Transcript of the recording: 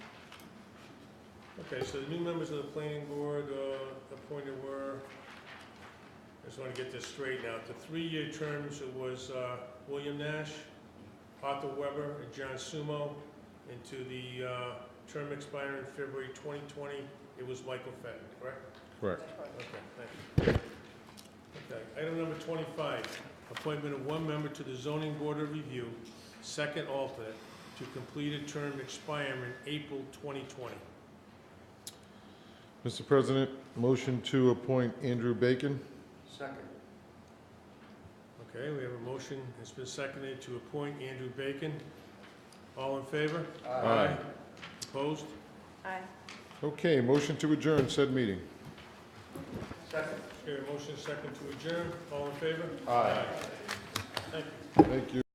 Okay, so the new members of the planning board uh, appointed were, I just want to get this straight now, the three-year terms, it was uh, William Nash, Arthur Weber, and John Sumo, and to the uh, term expiring in February 2020, it was Michael Fenton, correct? Correct. Okay, thank you. Okay, item number 25, appointment of one member to the zoning board of review, second alternate, to complete a term expiring April 2020. Mr. President, motion to appoint Andrew Bacon. Second. Okay, we have a motion, it's been seconded to appoint Andrew Bacon. All in favor? Aye. Opposed? Aye. Okay, motion to adjourn said meeting. Second. Okay, motion second to adjourn, all in favor? Aye. Thank you. Thank you.